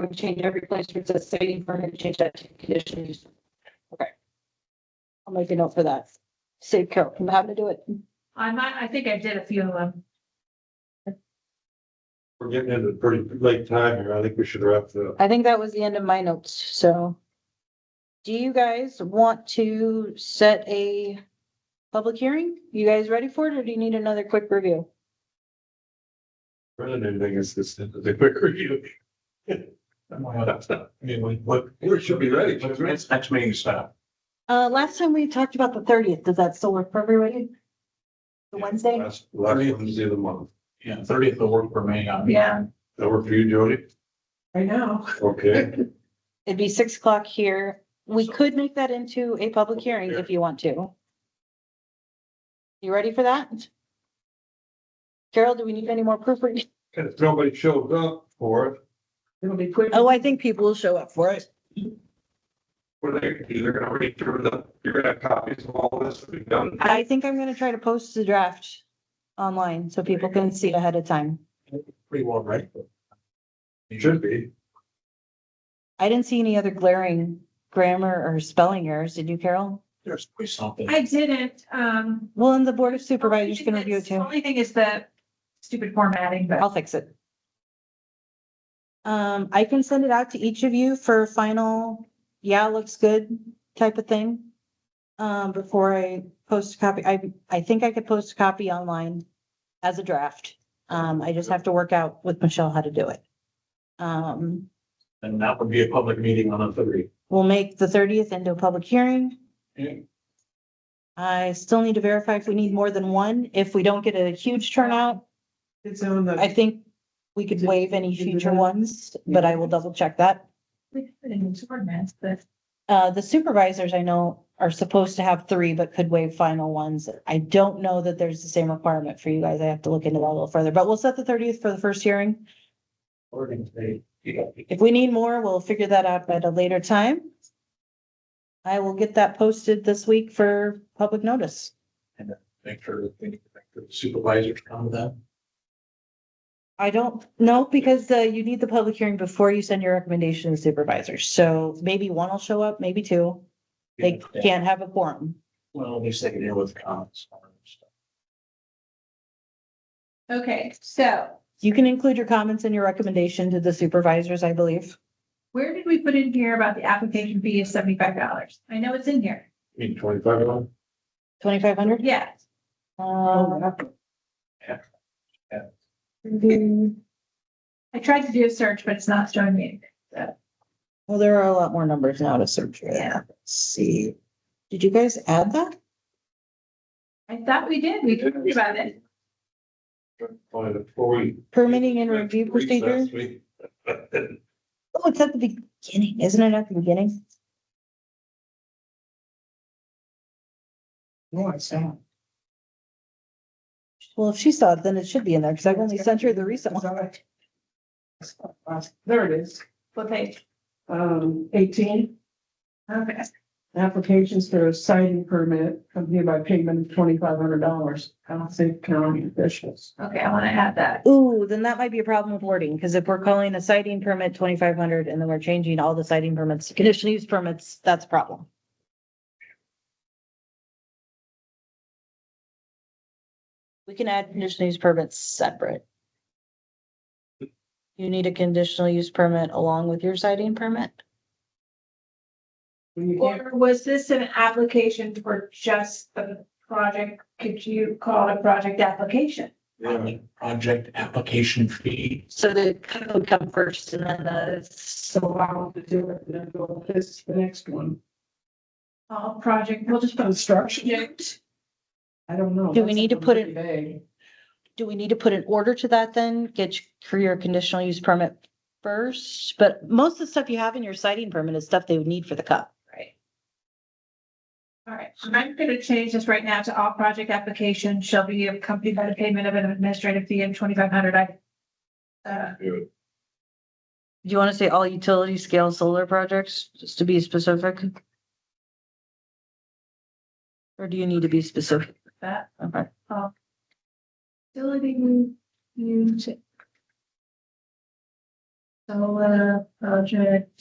would change every place where it says citing permit, change that to conditional use. Okay. I'll make a note for that. Save Carol from having to do it. I might, I think I did a few of them. We're getting into pretty late time here. I think we should wrap the I think that was the end of my notes, so. Do you guys want to set a public hearing? You guys ready for it, or do you need another quick review? running thing is this, the quick review. We should be ready. Next meeting stop. Uh, last time we talked about the thirtieth, does that still work for everybody? The Wednesday? Last last Wednesday of the month. Yeah, thirtieth will work for me. I mean, Yeah. That work for you, Jody? I know. Okay. It'd be six o'clock here. We could make that into a public hearing if you want to. You ready for that? Carol, do we need any more proof? And if nobody shows up for it, It'll be quick. Oh, I think people will show up for it. what are they gonna do? They're gonna read through the, you're gonna have copies of all this we've done. I think I'm gonna try to post the draft online so people can see it ahead of time. Pretty well, right? You should be. I didn't see any other glaring grammar or spelling errors, did you, Carol? There's always something. I didn't, um. Well, and the Board of Supervisors can review it too. The Only thing is the stupid formatting, but I'll fix it. Um, I can send it out to each of you for final, yeah, looks good type of thing. Um, before I post a copy, I, I think I could post a copy online as a draft. Um, I just have to work out with Michelle how to do it. Um, And that would be a public meeting on the thirty. We'll make the thirtieth into a public hearing. Yeah. I still need to verify if we need more than one. If we don't get a huge turnout, It's on I the, think we could waive any future ones, but I will double check that. we put in the ordinance, but Uh, the supervisors I know are supposed to have three, but could waive final ones. I don't know that there's the same requirement for you guys. I have to look into that a little further, but we'll set the thirtieth for the first hearing. If we need more, we'll figure that out at a later time. I will get that posted this week for public notice. Make sure that they- the supervisors come to that. I don't know, because uh, you need the public hearing before you send your recommendation to the supervisors. So maybe one will show up, maybe two. They can't have a quorum. Well, they say deal with comments. Okay, so You can include your comments and your recommendation to the supervisors, I believe. where did we put in here about the application fee of seventy-five dollars? I know it's in here. Mean twenty-five dollars. Twenty-five hundred? Yeah. Uh, I tried to do a search, but it's not showing me anything. well, there are a lot more numbers now to search. for. Yeah. Let's See, did you guys add that? I thought we did. We talked about it. Find it for you. Permitting and review Recess procedure? week. Oh, it's at the beginning, isn't it at the beginning? No, it's not. Well, if she saw it, then it should be in there, because I've only sent her the recent one. there it is, What page? um, eighteen, Okay. applications for a siting permit accompanied by payment of twenty-five hundred dollars. I don't think county officials. Okay, I want to add that. Ooh, then that might be a problem with wording, because if we're calling a citing permit twenty-five hundred and then we're changing all the citing permits to conditional use permits, that's a problem. We can add conditional use permits separate. You need a conditional use permit along with your citing permit? When you can't, Or was this an application for just the project? Could you call it a project application? Yeah. Project application fee. So the code would come first and then the, so allow them to do it, and then go with this, the next one, All project, we'll just put construction, project. I don't know. Do we need to put it- it? do we need to put an order to that then? Get your- for your conditional use permit first? But most of the stuff you have in your citing permit is stuff they would need for the cup. Right. All right, I'm going to change this right now to all project applications shall be accompanied by the payment of an administrative fee of twenty-five hundred. I uh, Do Do you want to say all utility scale solar projects, just to be specific? Or do you need to be specific? that. Okay. Facility use. solar uh, project.